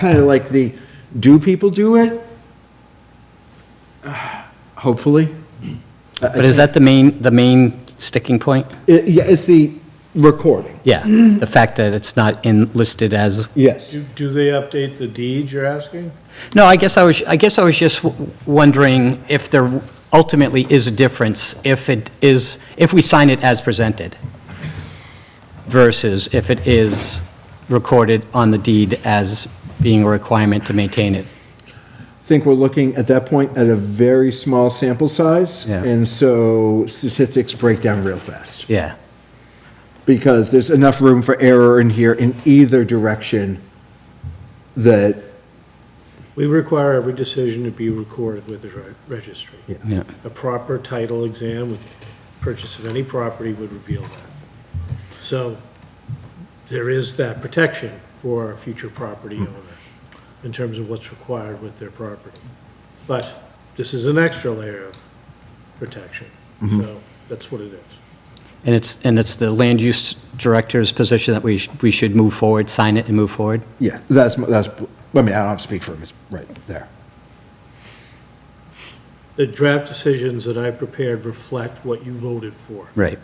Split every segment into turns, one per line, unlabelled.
kind of like the, do people do it? Hopefully.
But is that the main, the main sticking point? Mm-hmm.
It- Yeah, it's the recording,
Yeah, the fact that it's not in, listed as,
yes.
Do, do they update the deed you're asking?
no, I guess I was, I guess I was just w- wondering if there ultimately is a difference if it is, if we sign it as presented versus if it is recorded on the deed as being a requirement to maintain it.
think we're looking at that point at a very small sample size.
Yeah.
And so statistics break down real fast
Yeah,
because there's enough room for error in here in either direction that,
We require every decision to be recorded with the re- registry.
yeah.
A proper title exam with purchase of any property would reveal that. So there is that protection for a future property owner in terms of what's required with their property. But this is an extra layer of protection, so that's what it is.
And it's, and it's the land use director's position that we, sh- we should move forward, sign it and move forward?
yeah, that's, that's, I mean, I don't have to speak for him, it's right there.
The draft decisions that I prepared reflect what you voted for.
Right.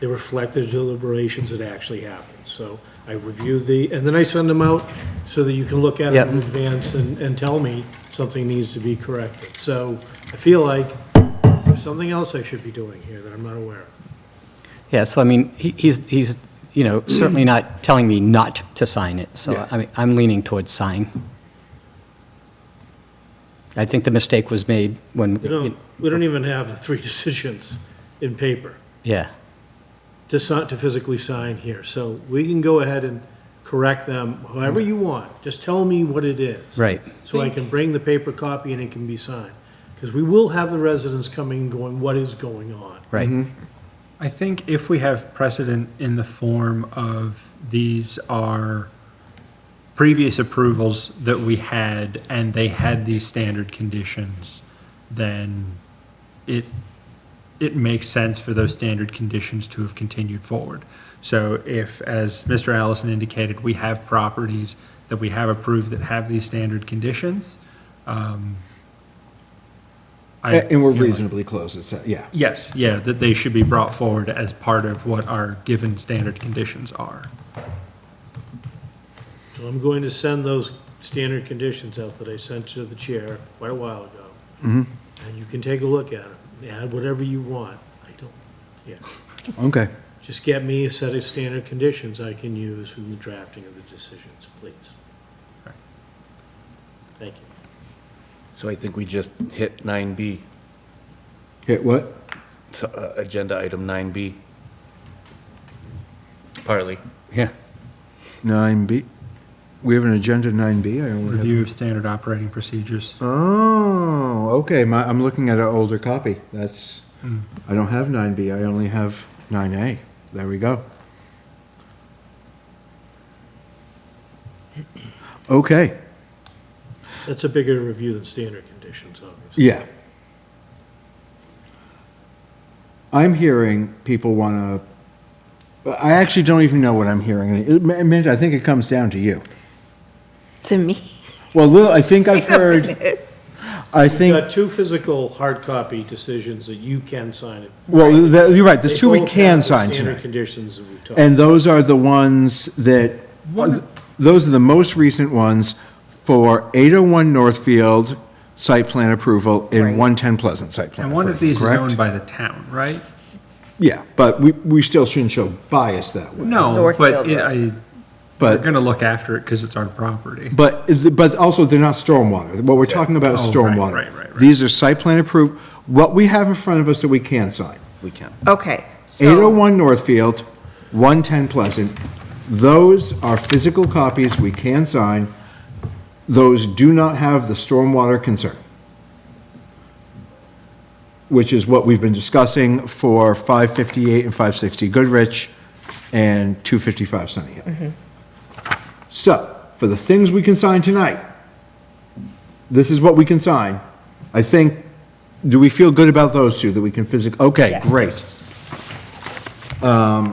They reflect the deliberations that actually happened. So I review the, and then I send them out so that you can look at it in
Yep.
advance and, and tell me something needs to be corrected. So I feel like is there something else I should be doing here that I'm not aware of?
Yeah, so I mean, he- he's, he's, you know, certainly not telling me not to sign it, so
Yeah.
I mean, I'm leaning towards sign. I think the mistake was made
We
when,
don't, we don't even have the three decisions in paper
yeah,
to sign, to physically sign here. So we can go ahead and correct them however you want. Just tell me what it is.
right,
so I can bring the paper copy and it can be signed. Because we will have the residents coming and going, what is going on?
right,
I think if we have precedent in the form of these are previous approvals that we had and they had these standard conditions, then it, it makes sense for those standard conditions to have continued forward. So if, as Mr. Allison indicated, we have properties that we have approved that have these standard conditions, um, I
And and we're
feel like-
reasonably close, it's, uh, yeah.
Yes, yeah, that they should be brought forward as part of what our given standard conditions are.
So I'm going to send those standard conditions out that I sent to the chair quite a while ago. And you can take a look at them, add whatever you want. I don't, yeah.
Okay.
Just get me a set of standard conditions I can use in the drafting of the decisions, please. Thank you.
So I think we just hit 9B,
Hit what?
so, uh, agenda item 9B. Partly.
yeah.
9B. We have an agenda 9B, I only have.
Review of standard operating procedures.
Oh, okay. My, I'm looking at an older copy. That's, I don't have 9B, I only have 9A. There we go. Okay,
That's a bigger review than standard conditions, obviously.
yeah. I'm hearing people want to, I actually don't even know what I'm hearing. It- Mint, I think it comes down to you.
To me?
Well, Lil, I think I've heard, I
You've
think.
got two physical hard copy decisions that you can sign it.
Well, th- you're right, there's
They
two we
both have
can
the
sign
Standard
tonight.
conditions that we've talked.
And those are the ones that, those are the most recent ones for 801 Northfield site plan approval and 110 Pleasant site plan
And one of
approval,
these is
correct?
owned by the town, right?
Yeah, but we, we still shouldn't show bias that way.
No,
Northfield
but it- I, we're
But,
going to look after it because it's our property.
but, is- but also they're not stormwater. What we're talking about is
Oh, right,
stormwater.
right, right, right.
These are site plan approved, what we have in front of us that we can sign.
We can.
Okay, so,
801 Northfield, 110 Pleasant. Those are physical copies we can sign. Those do not have the stormwater concern, which is what we've been discussing for 558 and 560 Goodrich and 255 Sunny Hill. So, for the things we can sign tonight, this is what we can sign. I think, do we feel good about those two, that we can physically, okay, great.
Sign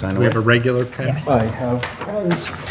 We
away.
have a regular pen.
I have pens.